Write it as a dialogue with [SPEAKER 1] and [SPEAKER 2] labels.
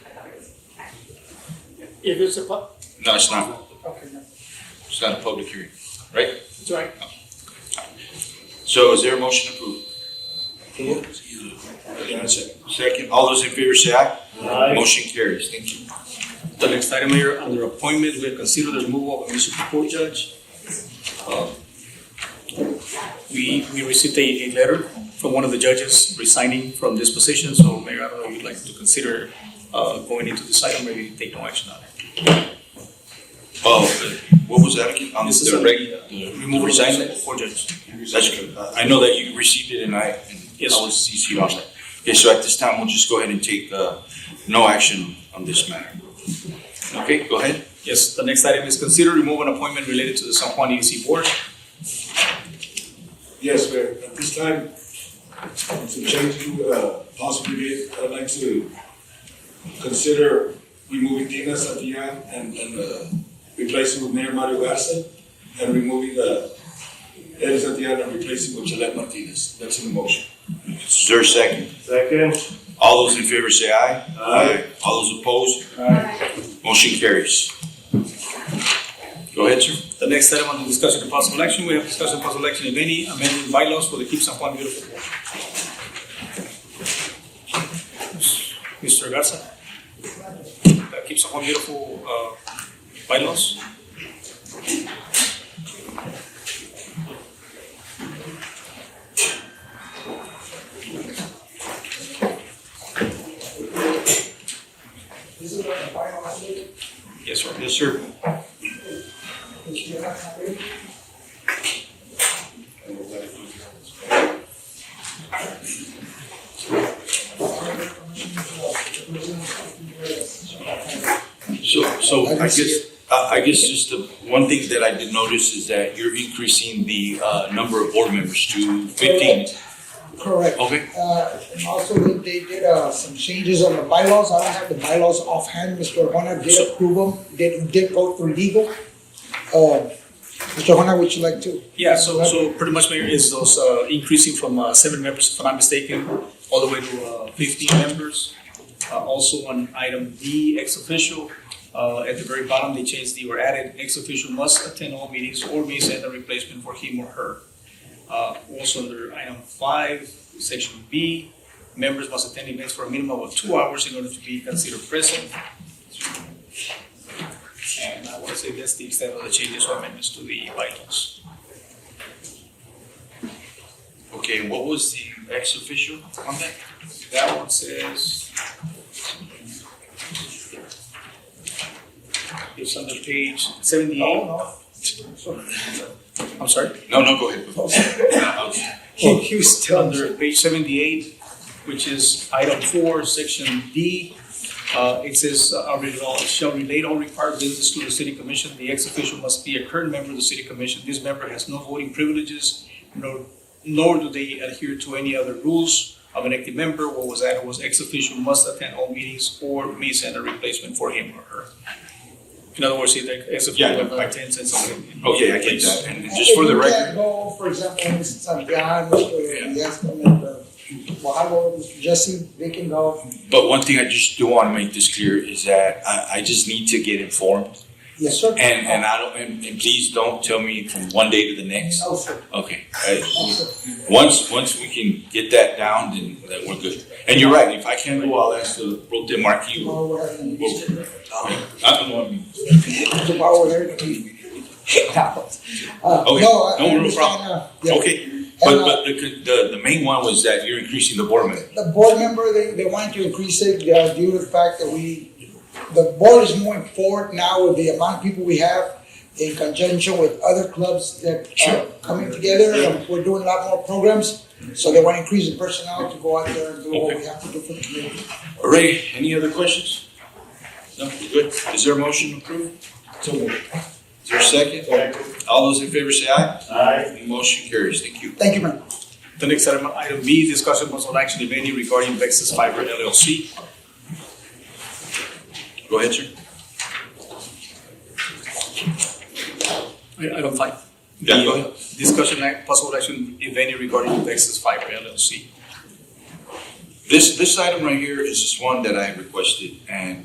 [SPEAKER 1] It is a, pu-
[SPEAKER 2] No, it's not.
[SPEAKER 1] okay, no,
[SPEAKER 2] It's not a public hearing, right?
[SPEAKER 1] it's all right.
[SPEAKER 2] So is there a motion to approve? Second, all those in favor say aye. Motion carries. Thank you.
[SPEAKER 3] The next item, Mayor, under appointment, we have considered the removal of a municipal court judge. Uh, We, we received a, a letter from one of the judges resigning from this position, so Mayor, I don't know if you'd like to consider, uh, going into this item, maybe take no action on it.
[SPEAKER 2] Oh, uh, what was that again? On
[SPEAKER 3] This is
[SPEAKER 2] the
[SPEAKER 3] on
[SPEAKER 2] reg,
[SPEAKER 3] the, uh,
[SPEAKER 2] the
[SPEAKER 3] Removal of a
[SPEAKER 2] resignation?
[SPEAKER 3] municipal court judge.
[SPEAKER 2] That's good. Uh, I know that you received it and I, and
[SPEAKER 3] Yes,
[SPEAKER 2] I was CC'd on that. Okay, so at this time, we'll just go ahead and take, uh, no action on this matter. Okay, go ahead.
[SPEAKER 3] Yes, the next item is consider remove an appointment related to the San Juan EDC Board.
[SPEAKER 4] Yes, Mayor, at this time, to change you, uh, possibly, I'd like to consider removing Dina Satian and, and, uh, replacing with Mayor Mario Garza, and removing, uh, Eddie Satian and replacing with Gillette Martinez. That's in the motion.
[SPEAKER 2] Is there a second?
[SPEAKER 5] Second.
[SPEAKER 2] All those in favor say aye. Aye. All those opposed? Motion carries. Go ahead, sir.
[SPEAKER 3] The next item under discussion and possible action, we have discussion and possible action, if any, amending bylaws for the Keep San Juan Beautiful Board. Mr. Garza? The Keep San Juan Beautiful, uh, bylaws?
[SPEAKER 6] This is what the final update,
[SPEAKER 3] Yes, sir.
[SPEAKER 2] Yes, sir.
[SPEAKER 6] which you have already.
[SPEAKER 2] So, so I guess, uh, I I guess just the one thing that I did notice is that you're increasing the uh, number of board members to fifteen.
[SPEAKER 6] Correct.
[SPEAKER 2] Okay,
[SPEAKER 6] Uh, and also they- they did, uh, some changes on the bylaws, I don't have the bylaws offhand, Mr. Hona did approve them, did, did go through legal. Uh, Mr. Hona, would you like to?
[SPEAKER 3] Yeah, so, so pretty much, Mayor, is those, uh, increasing from, uh, seven members, if I'm not mistaken, all the way to, uh, fifteen members. Uh, also on item D, ex official, uh, at the very bottom, they changed the, or added, ex official must attend all meetings or may send a replacement for him or her. Uh, also under item five, section B, members must attend events for a minimum of two hours in order to be considered present. And I wanna say that's the extent of the changes or amendments to the bylaws.
[SPEAKER 2] okay, and what was the ex-official on that?
[SPEAKER 3] That one says. It's on the page
[SPEAKER 6] No,
[SPEAKER 3] seventy-eight.
[SPEAKER 6] no.
[SPEAKER 3] I'm sorry.
[SPEAKER 2] No, no, go ahead. I was-
[SPEAKER 3] He, he was still under page seventy-eight, which is item four, section D. Uh, it says, uh, I'll read it all. shall relate all required business to the city commission. The ex-official must be a current member of the city commission. This member has no voting privileges, nor, nor do they adhere to any other rules of an active member. What was added was ex-official must attend all meetings or may send a replacement for him or her. In other words, if the
[SPEAKER 2] Yeah,
[SPEAKER 3] ex-official
[SPEAKER 2] I-
[SPEAKER 3] attends and something.
[SPEAKER 2] Okay, I get that, and just for the
[SPEAKER 6] And you
[SPEAKER 2] record,
[SPEAKER 6] can't go, for example, Mr. Santiago, Mr. Yasmin, and, uh, Guajardo, Mr. Jesse, they can go,
[SPEAKER 2] but one thing I just do want to make this clear is that I, I just need to get informed.
[SPEAKER 6] yes, sir.
[SPEAKER 2] And, and I don't, and, and please don't tell me from one day to the next.
[SPEAKER 6] No, sir,
[SPEAKER 2] Okay, I-
[SPEAKER 6] no, sir.
[SPEAKER 2] Once, once we can get that down, then, then we're good. And you're right, if I can't go, I'll ask the pro tem marquee.
[SPEAKER 6] Tomorrow, we're having a meeting.
[SPEAKER 2] I don't know,
[SPEAKER 6] Tomorrow, we're having a meeting. No, Uh,
[SPEAKER 2] Okay,
[SPEAKER 6] no, I- I
[SPEAKER 2] no real
[SPEAKER 6] understand,
[SPEAKER 2] problem.
[SPEAKER 6] uh, yeah.
[SPEAKER 2] okay, but, but the, the, the main one was that you're increasing the board member.
[SPEAKER 6] the board member, they, they wanted to increase it uh, due to the fact that we, the board is moving forward now with the amount of people we have in conjunction with other clubs that are coming together, and we're doing a lot more programs. So they want to increase the personnel to go out there and do what we have to do for the community.
[SPEAKER 2] All right, any other questions? No, we're good. Is there a motion approved?
[SPEAKER 6] So moved.
[SPEAKER 2] Is there a second? All those in favor say aye.
[SPEAKER 5] Aye.
[SPEAKER 2] Motion carries, thank you.
[SPEAKER 6] Thank you, man.
[SPEAKER 3] The next item, item B, discussion possible action, if any, regarding Vexus Fiber LLC.
[SPEAKER 2] Go ahead, sir.
[SPEAKER 3] Item five.
[SPEAKER 2] Yeah, go ahead.
[SPEAKER 3] Discussion act, possible action, if any, regarding Vexus Fiber LLC.
[SPEAKER 2] This, this item right here is just one that I requested, and